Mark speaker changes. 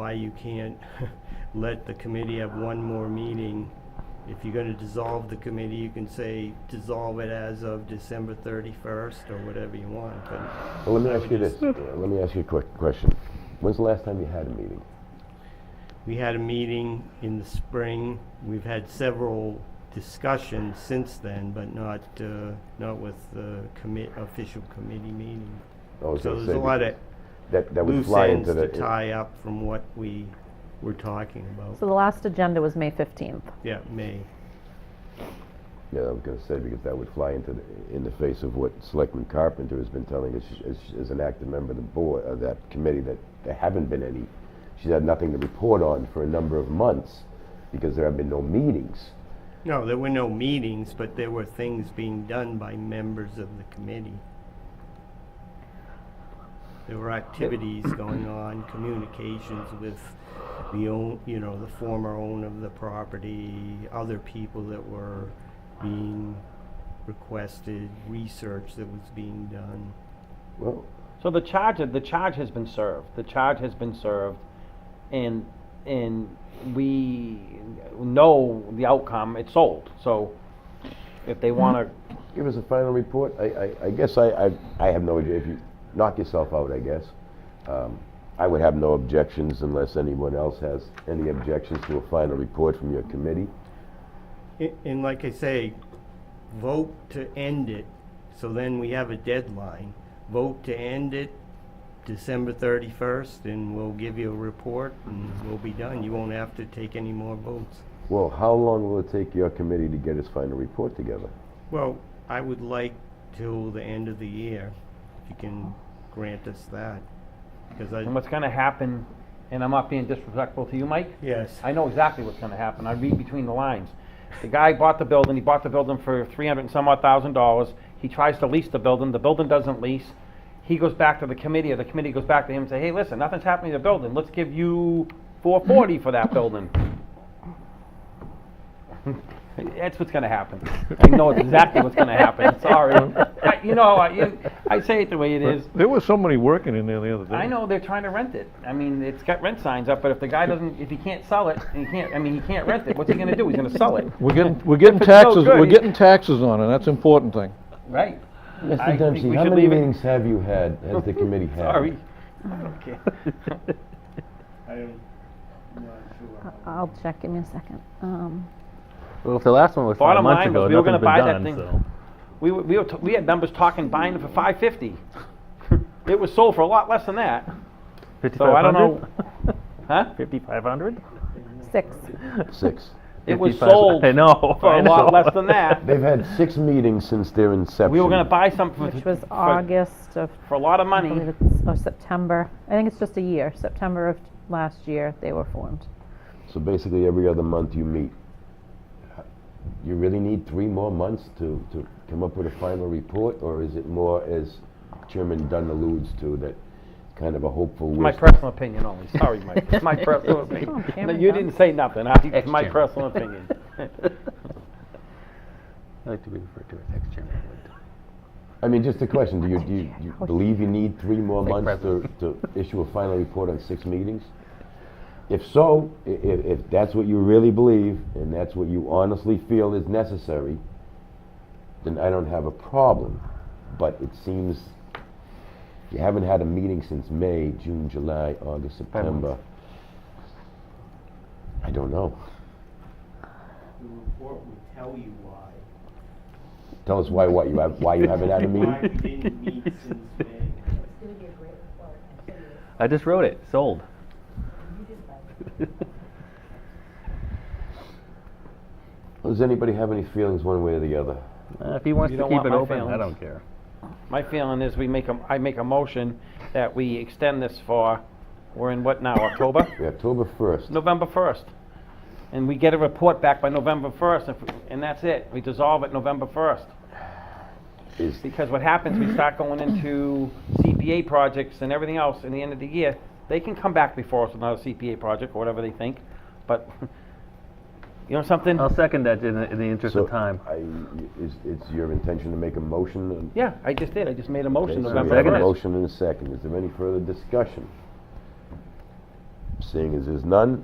Speaker 1: why you can't let the committee have one more meeting. If you're gonna dissolve the committee, you can say dissolve it as of December thirty-first or whatever you want, but
Speaker 2: Well, let me
Speaker 1: I
Speaker 2: ask
Speaker 1: would
Speaker 2: you this.
Speaker 1: just-
Speaker 2: Uh, Let me ask you a quick question. When's the last time you had a meeting?
Speaker 1: we had a meeting in the spring. We've had several discussions since then, but not, uh, not with the commit, official committee meeting.
Speaker 2: I was
Speaker 1: So
Speaker 2: gonna
Speaker 1: there's
Speaker 2: say
Speaker 1: a lot of
Speaker 2: That, that would
Speaker 1: loose
Speaker 2: fly
Speaker 1: ends
Speaker 2: into the.
Speaker 1: to tie up from what we were talking
Speaker 3: So
Speaker 1: about.
Speaker 3: the last agenda was May 15th.
Speaker 1: Yeah, May.
Speaker 2: Yeah, I was gonna say, because that would fly into the, in the face of what Selectman Carpenter has been telling us, as, as an active member of the board, of that committee, that there haven't been any, she's had nothing to report on for a number of months, because there have been no meetings.
Speaker 1: No, there were no meetings, but there were things being done by members of the committee. There were activities going on, communications with the own, you know, the former owner of the property, other people that were being requested, research that was being done.
Speaker 2: Well,
Speaker 4: So the charge, the charge has been served. The charge has been served, and and we know the outcome. It's sold. So if they want to,
Speaker 2: give us a final report, I, I, I guess I, I, I have no, idea. if you, knock yourself out, I guess. Um, I would have no objections unless anyone else has any objections to a final report from your committee.
Speaker 1: A- And like I say, vote to end it, so then we have a deadline. Vote to end it December thirty-first, and we'll give you a report, and we'll be done. You won't have to take any more votes.
Speaker 2: Well, how long will it take your committee to get its final report together?
Speaker 1: Well, I would like till the end of the year, if you can grant us that, because
Speaker 4: and
Speaker 1: I,
Speaker 4: what's going to happen? And I'm not being disrespectful to you, Mike.
Speaker 1: yes.
Speaker 4: I know exactly what's gonna happen. I read between the lines. The guy bought the building, he bought the building for three hundred and some odd thousand dollars. He tries to lease the building, the building doesn't lease. He goes back to the committee, or the committee goes back to him and say, hey, listen, nothing's happening to the building. Let's give you four forty for that building. That's what's gonna happen. I know exactly what's gonna happen. Sorry. I- You know, I, I say it the way it is.
Speaker 5: There was somebody working in there the other day.
Speaker 4: I know they're trying to rent it. I mean, it's got rent signs up, but if the guy doesn't, if he can't sell it, and he can't, I mean, he can't rent it, what's he gonna do? He's gonna sell it,
Speaker 5: We're getting, we're getting
Speaker 4: If it's so
Speaker 5: taxes,
Speaker 4: good,
Speaker 5: we're
Speaker 4: he-
Speaker 5: getting taxes on it, that's the important thing.
Speaker 4: right? I
Speaker 2: Mr.
Speaker 4: think
Speaker 2: Dempsey,
Speaker 4: we
Speaker 2: how
Speaker 4: should
Speaker 2: many
Speaker 4: leave it-
Speaker 2: meetings have you had, has the committee had?
Speaker 4: Sorry. I don't care.
Speaker 1: I'm not sure.
Speaker 3: I'll check, give me a second. Um,
Speaker 6: Well, if the last one was
Speaker 4: Bottom
Speaker 6: five months
Speaker 4: line was
Speaker 6: ago,
Speaker 4: we were gonna
Speaker 6: nothing's
Speaker 4: buy that
Speaker 6: been
Speaker 4: thing.
Speaker 6: done,
Speaker 4: We were, we were, t- we had members talking, buying it for five fifty. It was sold for a lot less than that,
Speaker 6: so.
Speaker 4: so I don't know,
Speaker 6: 5,500?
Speaker 4: huh?
Speaker 6: 5,500?
Speaker 3: Six.
Speaker 2: Six.
Speaker 4: It was
Speaker 6: 55
Speaker 4: sold
Speaker 6: I know.
Speaker 4: for
Speaker 6: I
Speaker 4: a lot
Speaker 6: know.
Speaker 4: less than that.
Speaker 2: They've had six meetings since their inception.
Speaker 4: We were gonna buy something
Speaker 3: Which
Speaker 4: for,
Speaker 3: was
Speaker 4: for,
Speaker 3: August of,
Speaker 4: for a lot of
Speaker 3: I believe
Speaker 4: money,
Speaker 3: it's, or September. I think it's just a year, September of last year they were formed.
Speaker 2: So basically, every other month you meet. You really need three more months to, to come up with a final report, or is it more, as Chairman Dunn alludes to, that kind of a hopeful wish?
Speaker 4: my personal opinion only, sorry, Mike, it's my personal opinion.
Speaker 3: Oh,
Speaker 4: No,
Speaker 3: Cameron
Speaker 4: You
Speaker 3: Dunn.
Speaker 4: didn't say nothing, I, it's my
Speaker 6: Ex-chairman.
Speaker 4: personal opinion.
Speaker 6: I like to be referred to as ex-chairman. I like to-
Speaker 2: I mean, just a question, do you, do you, you believe you need three more
Speaker 6: Thank
Speaker 2: months to, to issue a final report on six meetings? If so, i- i- if that's what you really believe, and that's what you honestly feel is necessary, then I don't have a problem. But it seems you haven't had a meeting since May, June, July, August,
Speaker 6: months.
Speaker 2: September. I don't know.
Speaker 1: The report will tell you why.
Speaker 2: Tell us why, what you have, why you haven't had a meeting?
Speaker 1: Why we didn't meet since May.
Speaker 6: I just wrote it, sold.
Speaker 2: Does anybody have any feelings one way or the other?
Speaker 6: Uh, If he wants
Speaker 4: You
Speaker 6: to
Speaker 4: don't
Speaker 6: keep
Speaker 4: want
Speaker 6: it
Speaker 4: my
Speaker 6: open, I
Speaker 4: feelings.
Speaker 6: don't care.
Speaker 4: My feeling is we make a, I make a motion that we extend this for, we're in what now, October?
Speaker 2: October 1st.
Speaker 4: November first. And we get a report back by November first, and that's it. We dissolve it November first.
Speaker 2: Is,
Speaker 4: Because what happens, we start going into CPA projects and everything else in the end of the year. They can come back before us with another CPA project, or whatever they think, but, you know something?
Speaker 2: Uh,
Speaker 6: I'll second that in the, in the interest
Speaker 2: So
Speaker 6: of time.
Speaker 2: I, is, it's your intention to make a motion? and-
Speaker 4: Yeah, I just did. I just made a
Speaker 2: Okay,
Speaker 4: motion
Speaker 2: so we
Speaker 4: November
Speaker 2: have a
Speaker 6: Second.
Speaker 4: first.
Speaker 2: motion and a second. Is there any further discussion? Seeing as there's none,